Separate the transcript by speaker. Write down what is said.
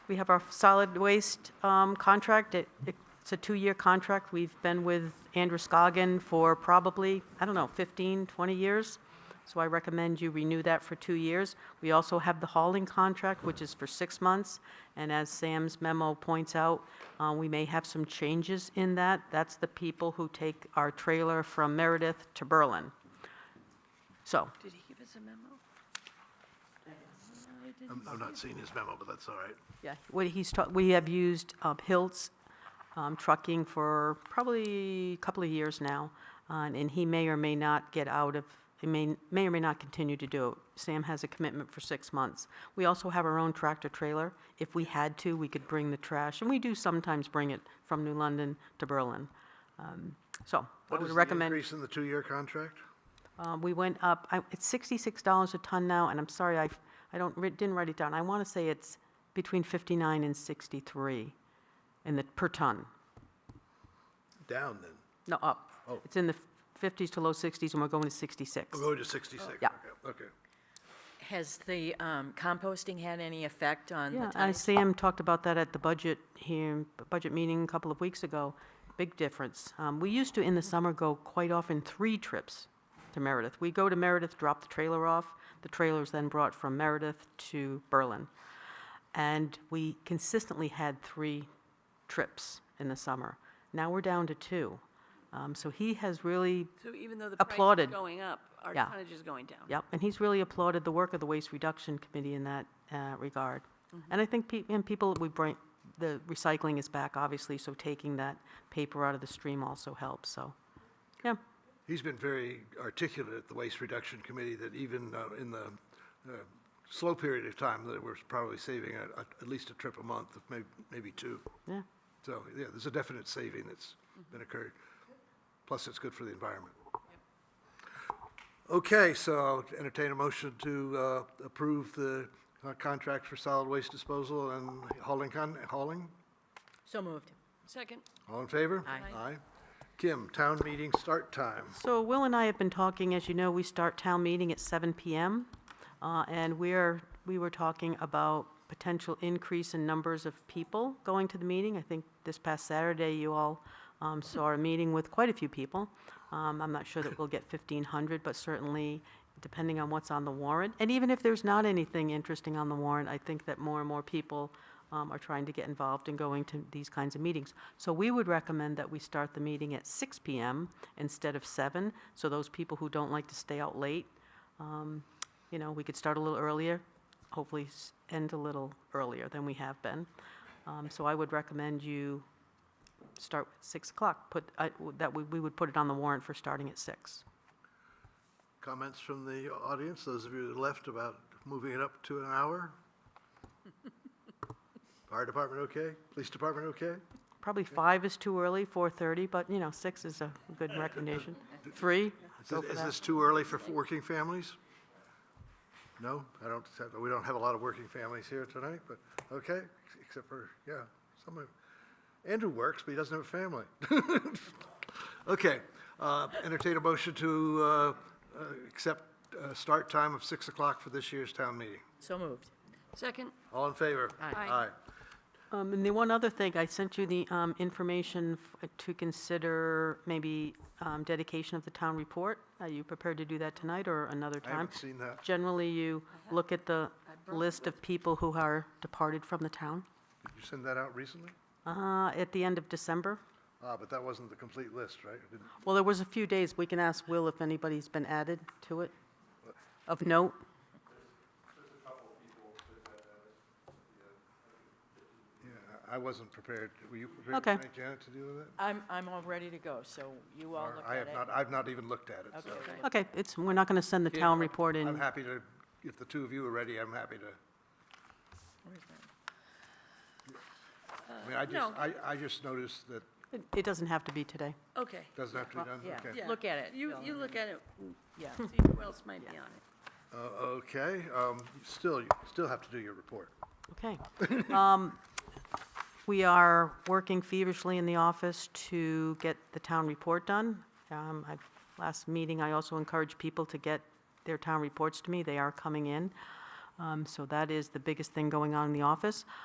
Speaker 1: We have our solid waste um, contract. It- It's a two-year contract. We've been with Andrew Scoggin for probably, I don't know, 15, 20 years. So I recommend you renew that for two years. We also have the hauling contract, which is for six months. And as Sam's memo points out, uh, we may have some changes in that. That's the people who take our trailer from Meredith to Berlin. So,
Speaker 2: Did he give us a memo?
Speaker 3: I'm, I'm not seeing his memo, but that's all right.
Speaker 1: Yeah, what he's, ta- we have used uh, Hiltz um, Trucking for probably a couple of years now, uh, and he may or may not get out of, he may, may or may not continue to do it. Sam has a commitment for six months. We also have our own tractor-trailer. If we had to, we could bring the trash, and we do sometimes bring it from New London to Berlin. Um, So I
Speaker 3: What
Speaker 1: would
Speaker 3: is
Speaker 1: recommend.
Speaker 3: the increase in the two-year contract?
Speaker 1: Uh, We went up, I- it's $66 a ton now, and I'm sorry, I, I don't, writ- didn't write it down. I want to say it's between 59 and 63 in the, per ton.
Speaker 3: Down then.
Speaker 1: No, up. It's in the 50s to low 60s, and we're going to 66.
Speaker 3: Oh. We're going to 66.
Speaker 1: Yeah.
Speaker 3: Okay, Okay.
Speaker 2: Has the um, composting had any effect on the
Speaker 1: Yeah, I-
Speaker 2: tonnage?
Speaker 1: Sam talked about that at the budget here, budget meeting a couple of weeks ago. Big difference. Um, We used to, in the summer, go quite often three trips to Meredith. We go to Meredith, drop the trailer off. The trailer's then brought from Meredith to Berlin. And we consistently had three trips in the summer. Now we're down to two. Um, So he has really
Speaker 4: So even though the price is
Speaker 1: Applauded.
Speaker 4: going up, our
Speaker 1: Yeah.
Speaker 4: tonnage is going down.
Speaker 1: Yep, and he's really applauded the work of the Waste Reduction Committee in that uh, regard. And I think, pe- and people, we bring, the recycling is back, obviously, so taking that paper out of the stream also helps, so, yeah.
Speaker 3: He's been very articulate at the Waste Reduction Committee that even uh, in the uh, slow period of time, that we're probably saving at, at- at least a trip a month, if may- maybe two.
Speaker 1: Yeah.
Speaker 3: So, yeah, there's a definite saving that's been occurred. Plus, it's good for the environment. Okay, so I'll entertain a motion to uh, approve the uh, contract for solid waste disposal and hauling, con- hauling?
Speaker 2: So moved.
Speaker 4: Second,
Speaker 3: All in favor?
Speaker 2: Aye.
Speaker 3: Aye. Kim, town meeting start time.
Speaker 1: So Will and I have been talking, as you know, we start town meeting at 7 PM, uh, and we're, we were talking about potential increase in numbers of people going to the meeting. I think this past Saturday, you all um, saw a meeting with quite a few people. Um, I'm not sure that we'll get 1,500, but certainly, depending on what's on the warrant, and even if there's not anything interesting on the warrant, I think that more and more people um, are trying to get involved in going to these kinds of meetings. So we would recommend that we start the meeting at 6 PM instead of 7, so those people who don't like to stay out late, um, you know, we could start a little earlier, hopefully s- end a little earlier than we have been. Um, So I would recommend you start at 6 o'clock, put, I- w- that we we would put it on the warrant for starting at 6.
Speaker 3: Comments from the audience, those of you that left about moving it up to an hour? Fire department okay? Police department okay?
Speaker 1: Probably 5 is too early, 4:30, but, you know, 6 is a good recommendation. 3,
Speaker 3: Is
Speaker 1: go
Speaker 3: this-
Speaker 1: for
Speaker 3: Is
Speaker 1: that.
Speaker 3: this too early for working families? No, I don't, we don't have a lot of working families here tonight, but, okay, except for, yeah, some of, Andrew works, but he doesn't have a family. Okay, uh, entertain a motion to uh, uh, accept uh, start time of 6 o'clock for this year's town meeting.
Speaker 2: So moved.
Speaker 4: second,
Speaker 3: All in favor?
Speaker 4: Aye.
Speaker 3: Aye.
Speaker 1: Um, And the one other thing, I sent you the um, information f- to consider maybe um, dedication of the town report. Are you prepared to do that tonight or another
Speaker 3: I
Speaker 1: time?
Speaker 3: haven't seen that.
Speaker 1: Generally, you look at the list of people who are departed from the town
Speaker 3: Did you send that out recently?
Speaker 1: uh, at the end of December.
Speaker 3: Ah, but that wasn't the complete list, right? It didn't-
Speaker 1: Well, there was a few days, we can ask Will if anybody's been added to it of note.
Speaker 3: Yeah, I I wasn't prepared. Were you prepared
Speaker 1: Okay.
Speaker 3: tonight, Janet, to deal with it?
Speaker 2: I'm, I'm all ready to go, so you all
Speaker 3: Or
Speaker 2: look
Speaker 3: I
Speaker 2: at
Speaker 3: have
Speaker 2: it.
Speaker 3: not, I've not even looked at it, so.
Speaker 2: Okay.
Speaker 1: Okay, it's, we're not going to send the town report
Speaker 3: I'm
Speaker 1: in.
Speaker 3: happy to, if the two of you are ready, I'm happy to. I
Speaker 2: Uh,
Speaker 3: mean, I just,
Speaker 4: no.
Speaker 3: I, I just noticed that
Speaker 1: It- It doesn't have to be today.
Speaker 4: okay.
Speaker 3: doesn't have to be done.
Speaker 2: yeah.
Speaker 3: Okay.
Speaker 4: Yeah.
Speaker 2: Look at it,
Speaker 4: You,
Speaker 2: Bill,
Speaker 4: you
Speaker 2: and
Speaker 4: look at it,
Speaker 2: Yeah.
Speaker 4: see who else might be on it.
Speaker 3: Uh, Okay, um, still, you still have to do your report.
Speaker 1: Okay. Um, We are working feverishly in the office to get the town report done. Um, I- Last meeting, I also encouraged people to get their town reports to me. They are coming in. Um, So that is the biggest thing going on in the office.